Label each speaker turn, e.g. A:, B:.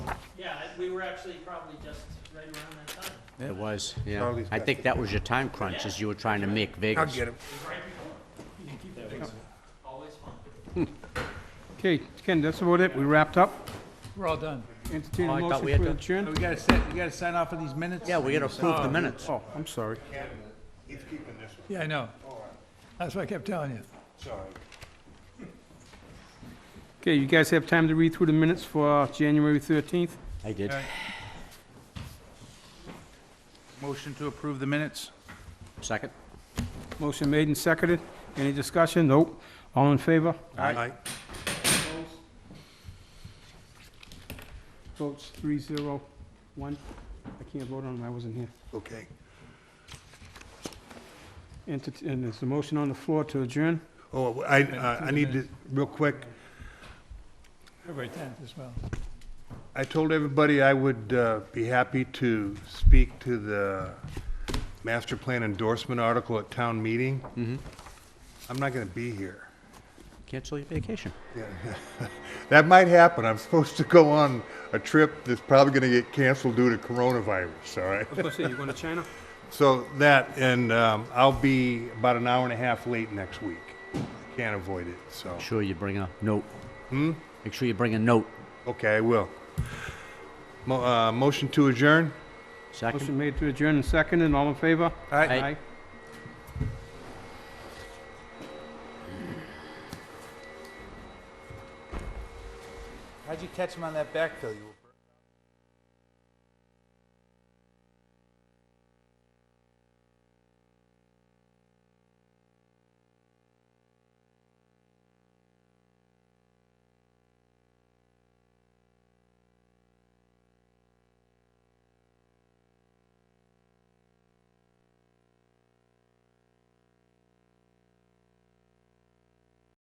A: we were actually probably just right around that time.
B: It was, yeah.
C: Charlie's
B: I
C: got
B: think that was your time crunch, as you were trying to make
C: I'll
B: Vegas.
C: get him.
A: Always fun.
D: Okay, Ken, that's about it. We wrapped up.
E: We're all done.
D: Entertain
B: Oh,
D: a
B: I thought
D: motion
B: we had
D: for
B: to-
E: We
D: adjourn.
E: gotta set, you gotta sign off on these minutes?
B: Yeah, we gotta approve the minutes.
D: Oh, I'm sorry.
E: Yeah, I know. That's what I kept telling you.
D: Okay, you guys have time to read through the minutes for uh, January 13th?
B: I did.
E: Motion to approve the minutes?
B: Second?
D: Motion made and seconded. Any discussion? Nope. All in favor?
C: Aye.
D: Votes three zero one. I can't vote on it, I wasn't here.
C: Okay.
D: Entert- And there's a motion on the floor to adjourn.
C: Oh, I, I I need to, real quick,
E: February 10th as well.
C: I told everybody I would uh, be happy to speak to the master plan endorsement article at town meeting. I'm not going to be here.
B: Cancel your vacation.
C: Yeah. That might happen. I'm supposed to go on a trip that's probably going to get canceled due to coronavirus, all right?
D: I was say, you going to China?
C: So that, and um, I'll be about an hour and a half late next week. Can't avoid it, so.
B: Make sure you bring a note. Hmm? Make sure you bring a note.
C: Okay, I will. Mo- uh, Motion to adjourn?
B: Second?
D: Motion made to adjourn and seconded. All in favor?
B: Aye.
E: How'd you catch him on that backfill? You were